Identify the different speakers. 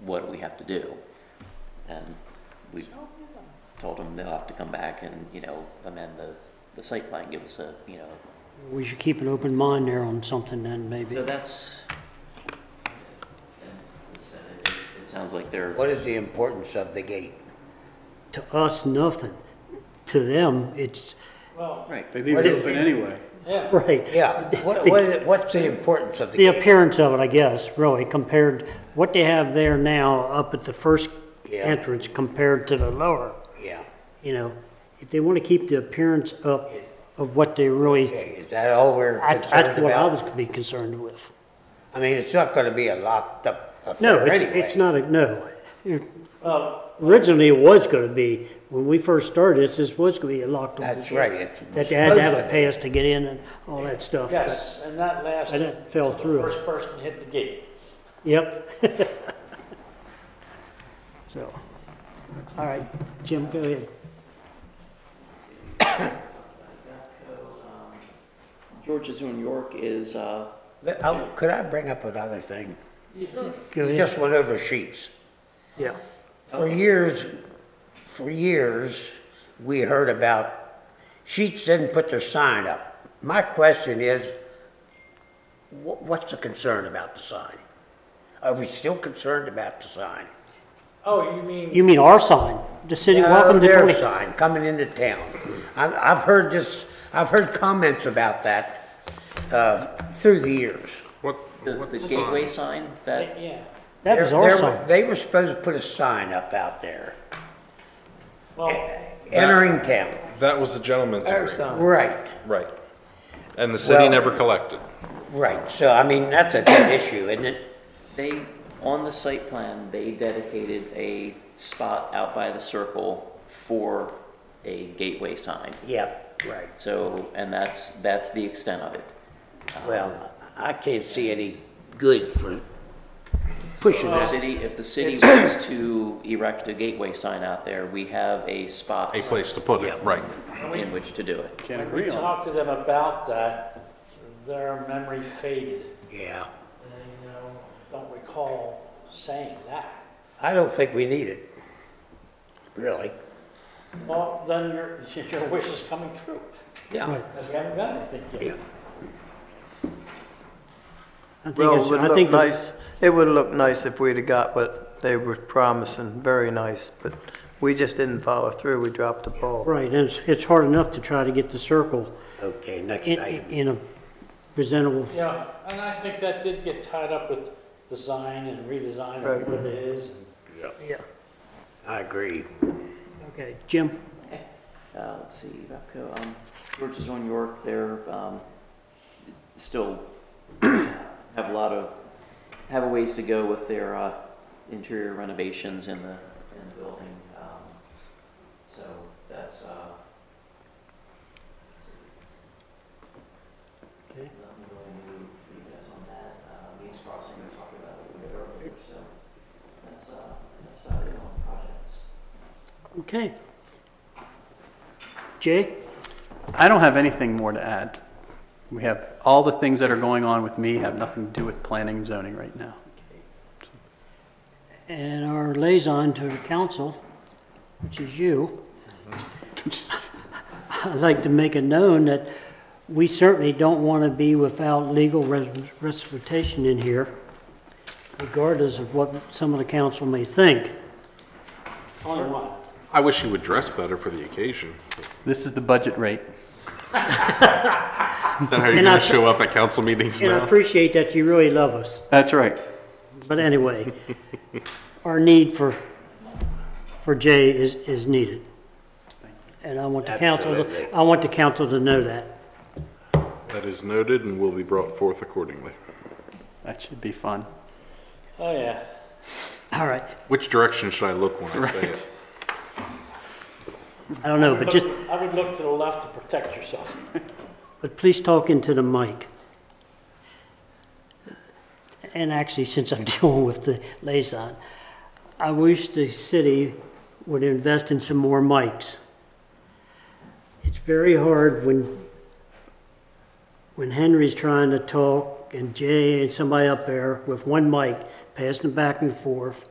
Speaker 1: what we have to do. And we told them they'll have to come back and, you know, amend the, the site plan, give us a, you know,
Speaker 2: We should keep an open mind there on something then, maybe.
Speaker 1: so that's. It it sounds like they're,
Speaker 3: What is the importance of the gate?
Speaker 2: To us, nothing. To them, it's,
Speaker 1: right,
Speaker 4: They leave
Speaker 3: What
Speaker 4: it
Speaker 3: is-
Speaker 4: open anyway.
Speaker 2: right.
Speaker 3: Yeah, what, what is- what's the importance of the
Speaker 2: The
Speaker 3: gate?
Speaker 2: appearance of it, I guess, really, compared, what they have there now up at the first
Speaker 3: Yeah.
Speaker 2: entrance compared to the lower,
Speaker 3: Yeah,
Speaker 2: you know? If they want to keep the appearance up of what they really,
Speaker 3: okay, is that all we're
Speaker 2: I-
Speaker 3: concerned
Speaker 2: that's what I was
Speaker 3: about?
Speaker 2: gonna be concerned with.
Speaker 3: I mean, it's not gonna be a locked up
Speaker 2: No,
Speaker 3: affair
Speaker 2: it's,
Speaker 3: anyway.
Speaker 2: it's not a, no. It- Originally, it was gonna be, when we first started this, this was gonna be a locked door.
Speaker 3: That's right, it's.
Speaker 2: That they had to have
Speaker 3: supposed
Speaker 2: a pass to get in and all that stuff.
Speaker 5: Yes, and that last.
Speaker 2: And it fell through.
Speaker 5: First person hit the gate.
Speaker 2: Yep. So, all right, Jim, go ahead.
Speaker 1: George is doing York is, uh,
Speaker 3: But, oh, Could I bring up another thing?
Speaker 2: Go
Speaker 3: We
Speaker 2: ahead.
Speaker 3: just went over sheets.
Speaker 2: Yeah.
Speaker 3: For years, for years, we heard about Sheets didn't put their sign up. My question is, wh- what's the concern about the sign? Are we still concerned about the sign?
Speaker 5: Oh, you mean,
Speaker 2: You mean our sign, the city, welcome
Speaker 3: No,
Speaker 2: to
Speaker 3: Their
Speaker 2: 20.
Speaker 3: sign coming into town. I've, I've heard this, I've heard comments about that, uh, through the years.
Speaker 6: What,
Speaker 1: the
Speaker 6: what
Speaker 1: the
Speaker 6: sign?
Speaker 1: gateway sign that,
Speaker 5: yeah,
Speaker 2: That was
Speaker 3: They're-
Speaker 2: our
Speaker 3: they're-
Speaker 2: sign.
Speaker 3: They were supposed to put a sign up out there, E-,
Speaker 5: well,
Speaker 3: uh, entering town.
Speaker 6: That was the gentleman's agreement,
Speaker 3: Right.
Speaker 6: right. And the city
Speaker 3: Well-
Speaker 6: never collected.
Speaker 3: Right, so I mean, that's a dead issue, isn't it?
Speaker 1: they, on the site plan, they dedicated a spot out by the circle for a gateway sign.
Speaker 3: Yep, right.
Speaker 1: So, and that's, that's the extent of it.
Speaker 3: Well, I can't see any good for pushing
Speaker 1: The
Speaker 3: that.
Speaker 1: city, if the city wants to erect a gateway sign out there, we have a spot
Speaker 6: A place to put it, right.
Speaker 1: in which to do it.
Speaker 4: Can't
Speaker 5: we
Speaker 4: agree on
Speaker 5: talked to them about that, their memory faded.
Speaker 3: Yeah,
Speaker 5: And they, you know, don't recall saying that.
Speaker 3: I don't think we need it, really.
Speaker 5: Well, then your, your wish is coming true,
Speaker 3: Yeah.
Speaker 5: because we haven't done anything
Speaker 3: Yeah.
Speaker 5: yet.
Speaker 2: I think
Speaker 7: Well, it
Speaker 2: it's-
Speaker 7: would
Speaker 2: I
Speaker 7: look
Speaker 2: think the-
Speaker 7: nice, it would look nice if we'd have got what they were promising, very nice, but we just didn't follow through, we dropped the ball.
Speaker 2: Right, and it's, it's hard enough to try to get the circle
Speaker 3: Okay, next
Speaker 2: in,
Speaker 3: item.
Speaker 2: in a presentable,
Speaker 5: Yeah, and I think that did get tied up with design and redesign of
Speaker 7: Right.
Speaker 5: what it is.
Speaker 2: yeah,
Speaker 3: I agree.
Speaker 2: okay, Jim?
Speaker 1: Uh, let's see, Valco, um, George's on York, they're, um, still have a lot of, have a ways to go with their, uh, interior renovations in the, in the building. Um, So that's, uh.
Speaker 2: Okay.
Speaker 1: Nothing really new for you guys on that. Uh, Means Crossing, we talked about it a little bit earlier, so that's, uh, that's about it on projects.
Speaker 2: Okay. Jay?
Speaker 4: I don't have anything more to add. We have, all the things that are going on with me have nothing to do with planning and zoning right now.
Speaker 2: And our liaison to the council, which is you, I'd like to make it known that we certainly don't want to be without legal res- representation in here, regardless of what some of the council may think.
Speaker 5: Only one.
Speaker 6: I wish you would dress better for the occasion.
Speaker 4: This is the budget rate.
Speaker 6: Is that how you're
Speaker 2: And I-
Speaker 6: gonna show up at council meetings
Speaker 2: And I
Speaker 6: now?
Speaker 2: appreciate that you really love us,
Speaker 4: That's right.
Speaker 2: but anyway, our need for, for Jay is, is needed. And I want the council, to-
Speaker 3: Absolutely.
Speaker 2: I want the council to know that.
Speaker 6: That is noted and will be brought forth accordingly.
Speaker 4: That should be fun.
Speaker 5: Oh, yeah.
Speaker 2: All right,
Speaker 6: Which direction should I look when I say it?
Speaker 2: I don't know, but just,
Speaker 5: I would look to the left to protect yourself.
Speaker 2: But please talk into the mic. And actually, since I'm dealing with the liaison, I wish the city would invest in some more mics. It's very hard when, when Henry's trying to talk and Jay and somebody up there with one mic, passing back and forth.